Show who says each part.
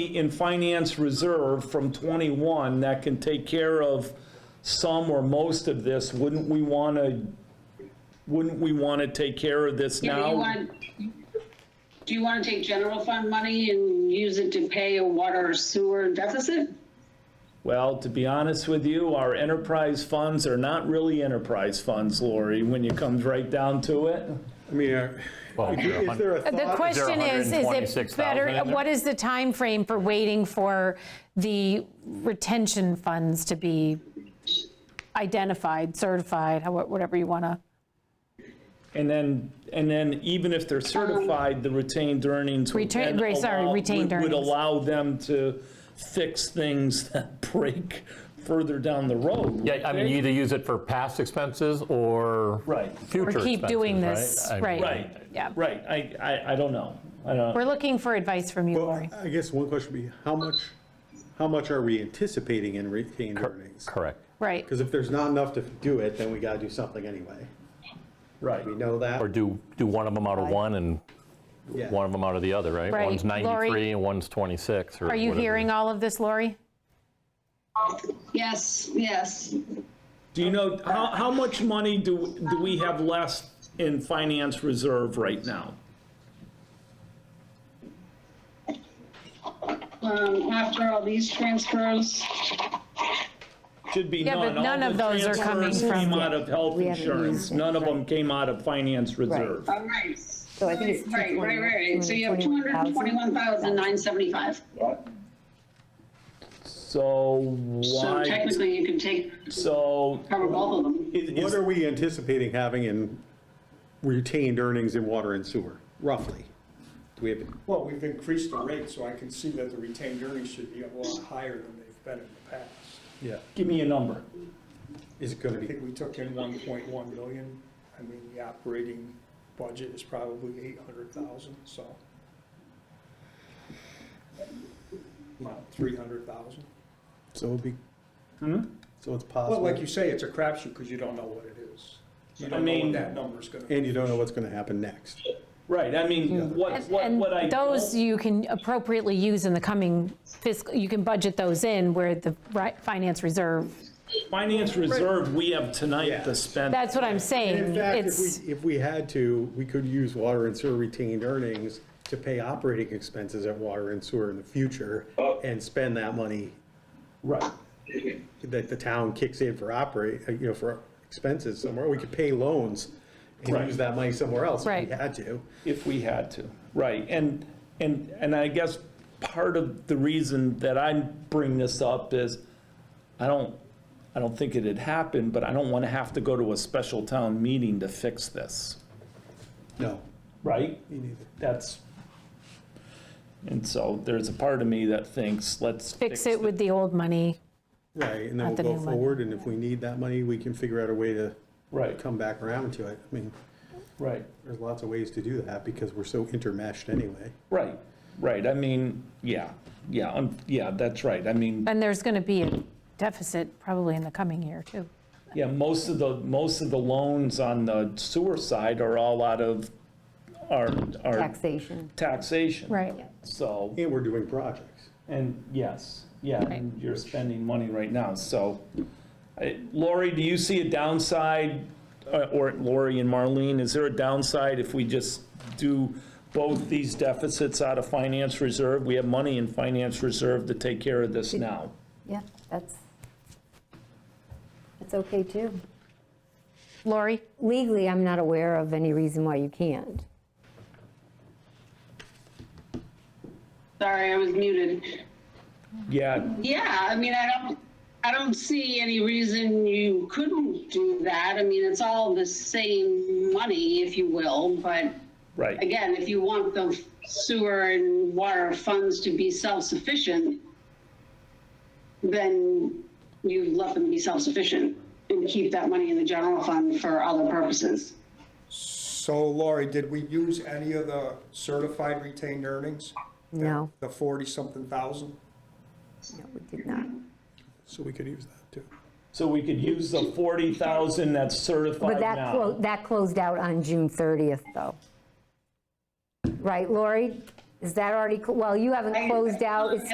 Speaker 1: in finance reserve from 21 that can take care of some or most of this, wouldn't we want to, wouldn't we want to take care of this
Speaker 2: Yeah, but you
Speaker 1: now?
Speaker 2: want, do you want to take general fund money and use it to pay a water or sewer deficit?
Speaker 1: Well, to be honest with you, our enterprise funds are not really enterprise funds, Lori, when it comes right down to it.
Speaker 3: I mean, are-
Speaker 4: Well, is there a
Speaker 3: is there a
Speaker 5: The
Speaker 3: thought,
Speaker 5: question is, is it
Speaker 4: 126,000
Speaker 5: better,
Speaker 4: in there?
Speaker 5: what is the time frame for waiting for the retention funds to be identified, certified, how- whatever you want to?
Speaker 1: And then, and then even if they're certified, the retained earnings would
Speaker 5: Um, Retain-
Speaker 1: then
Speaker 5: right, sorry,
Speaker 1: allow-
Speaker 5: retained
Speaker 1: would- Would
Speaker 5: earnings.
Speaker 1: allow them to fix things that break further down the road.
Speaker 4: Yeah, I mean, you either use it for past expenses or
Speaker 1: Right.
Speaker 4: future
Speaker 5: Or
Speaker 4: expenses,
Speaker 5: keep doing this,
Speaker 4: I mean,
Speaker 5: right.
Speaker 1: Right,
Speaker 5: Yeah.
Speaker 1: right, I, I, I don't know, I don't,
Speaker 5: We're looking for advice from you,
Speaker 3: well,
Speaker 5: Lori.
Speaker 3: I guess one question would be, how much, how much are we anticipating in retained earnings?
Speaker 4: Correct.
Speaker 5: Right,
Speaker 3: Because if there's not enough to do it, then we gotta do something anyway.
Speaker 1: right.
Speaker 3: We know that.
Speaker 4: Or do, do one of them out of one and
Speaker 3: Yeah.
Speaker 4: one of them out of the other, right?
Speaker 5: Right.
Speaker 4: One's
Speaker 5: Lori-
Speaker 4: 93 and one's 26 or
Speaker 5: are you
Speaker 4: whatever.
Speaker 5: hearing all of this, Lori?
Speaker 2: Yes, yes.
Speaker 1: Do you know, how, how much money do, do we have left in finance reserve right now?
Speaker 2: Um, after all these transfers,
Speaker 1: Should be
Speaker 5: Yeah,
Speaker 1: none.
Speaker 5: but none
Speaker 1: All
Speaker 5: of
Speaker 1: the
Speaker 5: those are coming
Speaker 1: transfers
Speaker 5: from-
Speaker 1: Came out of health
Speaker 6: We haven't
Speaker 1: insurance,
Speaker 6: used it,
Speaker 1: none of them came out of finance reserve.
Speaker 2: all right. So
Speaker 6: I think it's
Speaker 2: Right, right, right. So you have two hundred and
Speaker 6: 221,000.
Speaker 2: twenty-one thousand nine seventy-five.
Speaker 1: So
Speaker 2: So
Speaker 1: why,
Speaker 2: technically you can take,
Speaker 1: so
Speaker 2: cover both of them.
Speaker 1: is,
Speaker 3: What
Speaker 1: is-
Speaker 3: are we anticipating having in retained earnings in water and sewer, roughly? Do we have,
Speaker 7: Well, we've increased the rate, so I can see that the retained earnings should be a lot higher than they've been in the past.
Speaker 3: yeah,
Speaker 1: give me a number.
Speaker 3: is it gonna
Speaker 7: I
Speaker 3: be,
Speaker 7: think we took in one point one million. I mean, the operating budget is probably eight hundred thousand, so. About three hundred thousand.
Speaker 3: so it'll be, Hmm? so it's
Speaker 7: Well, like you
Speaker 3: possible,
Speaker 7: say, it's a crapshoot because you don't know what it is. You don't know
Speaker 1: mean-
Speaker 7: what that number's gonna be.
Speaker 3: and you don't know what's gonna happen next.
Speaker 1: Right, I mean, what, what,
Speaker 5: And
Speaker 1: what I.
Speaker 5: those you can appropriately use in the coming fiscal, you can budget those in where the ri- finance reserve,
Speaker 1: Finance reserve, we have tonight to
Speaker 3: Yeah.
Speaker 1: spend.
Speaker 5: that's what I'm saying.
Speaker 3: In fact, if
Speaker 5: It's-
Speaker 3: we, if we had to, we could use water and sewer retained earnings to pay operating expenses at water and sewer in the future and spend that money
Speaker 1: Right.
Speaker 3: that the town kicks in for operate, uh, you know, for expenses somewhere. We could pay loans and use that money somewhere else if
Speaker 5: Right.
Speaker 3: we had to.
Speaker 1: if we had to. Right, and, and, and I guess part of the reason that I bring this up is, I don't, I don't think it had happened, but I don't want to have to go to a special town meeting to fix this,
Speaker 3: No,
Speaker 1: right?
Speaker 3: me neither.
Speaker 1: That's, and so there's a part of me that thinks, let's
Speaker 5: Fix it with the old money.
Speaker 3: Right, and then
Speaker 5: Not the
Speaker 3: we'll go
Speaker 5: new money.
Speaker 3: forward, and if we need that money, we can figure out a way to
Speaker 1: Right,
Speaker 3: come back around to it. I mean,
Speaker 1: right,
Speaker 3: there's lots of ways to do that because we're so intermeshed anyway.
Speaker 1: right, right. I mean, yeah, yeah, um, yeah, that's right. I mean,
Speaker 5: And there's going to be a deficit probably in the coming year, too.
Speaker 1: Yeah, most of the, most of the loans on the sewer side are all out of our, our
Speaker 6: Taxation.
Speaker 1: taxation.
Speaker 5: Right.
Speaker 1: So,
Speaker 3: And we're doing projects.
Speaker 1: and yes, yeah, and
Speaker 5: Right.
Speaker 1: you're spending money right now, so. I- Lori, do you see a downside, uh, or Lori and Marlene, is there a downside if we just do both these deficits out of finance reserve? We have money in finance reserve to take care of this now.
Speaker 6: Yeah, that's, that's okay too.
Speaker 5: Lori?
Speaker 6: Legally, I'm not aware of any reason why you can't.
Speaker 2: Sorry, I was muted.
Speaker 1: Yeah,
Speaker 2: Yeah, I mean, I don't, I don't see any reason you couldn't do that. I mean, it's all the same money, if you will, but
Speaker 1: right,
Speaker 2: again, if you want the sewer and water funds to be self-sufficient, then you let them be self-sufficient and keep that money in the general fund for other purposes.
Speaker 7: So Laurie, did we use any of the certified retained earnings?
Speaker 6: No,
Speaker 7: The forty-something thousand?
Speaker 6: no, we did not.
Speaker 3: So we could use that too.
Speaker 1: so we could use the 40,000 that's certified now.
Speaker 6: But that, clo- that closed out on June 30th though. Right, Lori? Is that already, clo- well, you haven't closed out, it's